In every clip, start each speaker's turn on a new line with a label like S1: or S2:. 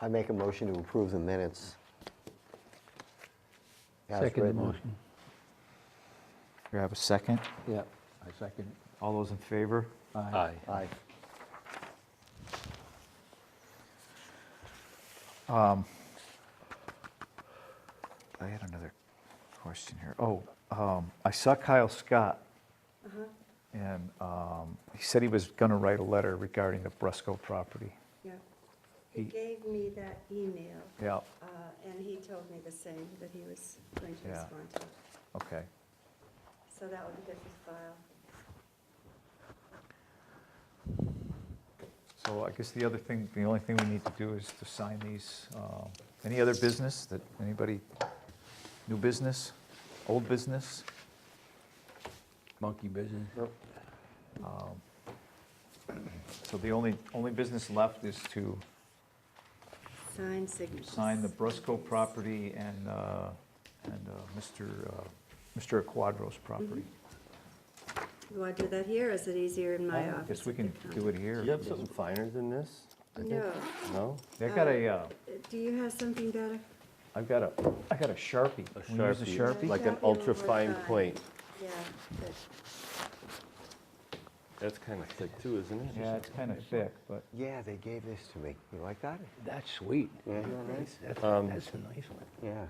S1: I make a motion to approve the minutes. as
S2: Second
S1: written.
S2: motion.
S3: You have a second?
S2: Yeah, I second it.
S3: All those in favor?
S2: Aye.
S1: Aye.
S3: I had another question here. Oh, um, I saw Kyle Scott. And, um, he said he was gonna write a letter regarding the Brusco property.
S4: Yeah. He
S3: He-
S4: gave me that email,
S3: Yeah,
S4: uh, and he told me the same, that he was going to
S3: Yeah.
S4: respond to it.
S3: okay.
S4: So that would be good for file.
S3: So I guess the other thing, the only thing we need to do is to sign these. um, Any other business that, anybody, new business, old business?
S2: Monkey business.
S3: So the only, only business left is to
S4: Sign signatures.
S3: sign the Brusco property and, uh, and uh, Mr. uh, Mr. Quadro's property.
S4: You want to do that here, or is it easier in Mm-hmm. my
S3: I
S4: office?
S3: guess we can do it
S1: Do
S3: here.
S1: you have something finer than this? I think-
S4: No.
S1: No?
S3: They got a, uh,
S4: Do you have something better?
S3: I've got a, I got a Sharpie. Can we use a Sharpie?
S1: Like an
S4: Sharpie
S1: ultra
S4: would
S1: fine
S4: work.
S1: point.
S4: Yeah, but
S1: That's kind of thick too, isn't it?
S3: Yeah, it's kind of thick, but
S5: Yeah, they gave this to me. You like that?
S2: That's sweet.
S1: Yeah.
S2: That's that's a nice one.
S5: Yeah.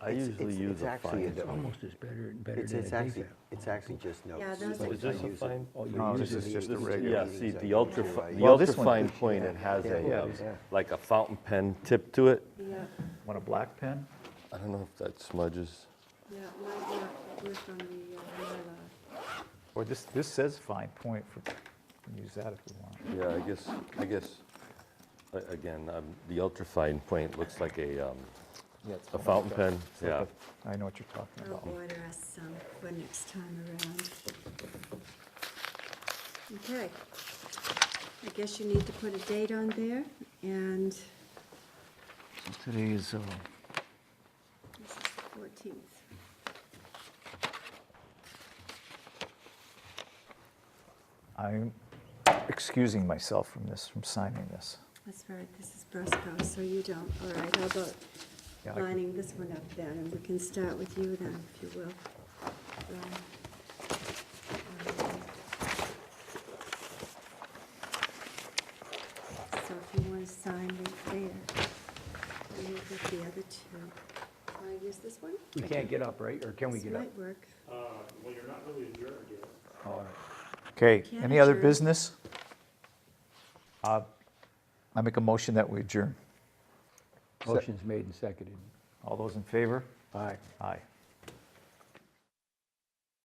S1: I
S5: It's-
S1: usually
S5: it's-
S1: use
S5: it's
S1: a
S5: actually
S1: fine.
S5: a
S2: It's
S5: Yeah.
S2: almost as better, better
S5: It's,
S2: than a
S5: it's actually,
S2: defect.
S5: it's actually just notes.
S4: Yeah, those
S5: like
S4: are-
S1: Is this
S5: I
S1: a
S5: use it.
S1: fine?
S2: Oh, you use
S3: No, uh, this
S2: it.
S3: is just a
S5: This is-
S3: regular.
S1: Yeah,
S5: Yeah,
S1: see, the
S5: exactly.
S1: ultra,
S5: Yeah.
S1: fi- the
S3: Well, this
S1: ultra
S3: one-
S1: fine point, it has
S5: Yeah,
S1: a,
S5: yeah,
S1: uh,
S5: yeah.
S1: like a fountain pen tip to it.
S4: Yeah,
S3: Want a black pen?
S1: I don't know if that smudges.
S4: yeah, might work, work on the, uh, Mylar.
S3: Or this, this says fine point for, you can use that if you want.
S1: Yeah, I guess, I guess, a- again, um, the ultra fine point looks like a, um,
S3: Yeah, it's
S1: a
S3: fine.
S1: fountain pen,
S3: It's like
S1: yeah.
S3: a- I know what you're talking about.
S4: I'll order us some for next time around. Okay. I guess you need to put a date on there, and
S2: Today is, uh,
S4: this is the fourteenth.
S3: I'm excusing myself from this, from signing this.
S4: That's right, this is Brusco, so you don't, all right, how about
S3: Yeah, I can-
S4: lining this one up then, and we can start with you then, if you will. Um, um, So if you want to sign right there, and you get the other two. Want to use this one?
S2: we can't get up, right? Or can we
S4: This
S2: get up?
S4: might work.
S6: Uh, well, you're not really adjourned yet.
S2: All right.
S3: Okay,
S4: Can
S3: any other
S4: adjourn.
S3: business? Uh, I make a motion that we adjourn.
S2: Motion's made and seconded.
S3: All those in favor?
S2: All right.
S3: Aye.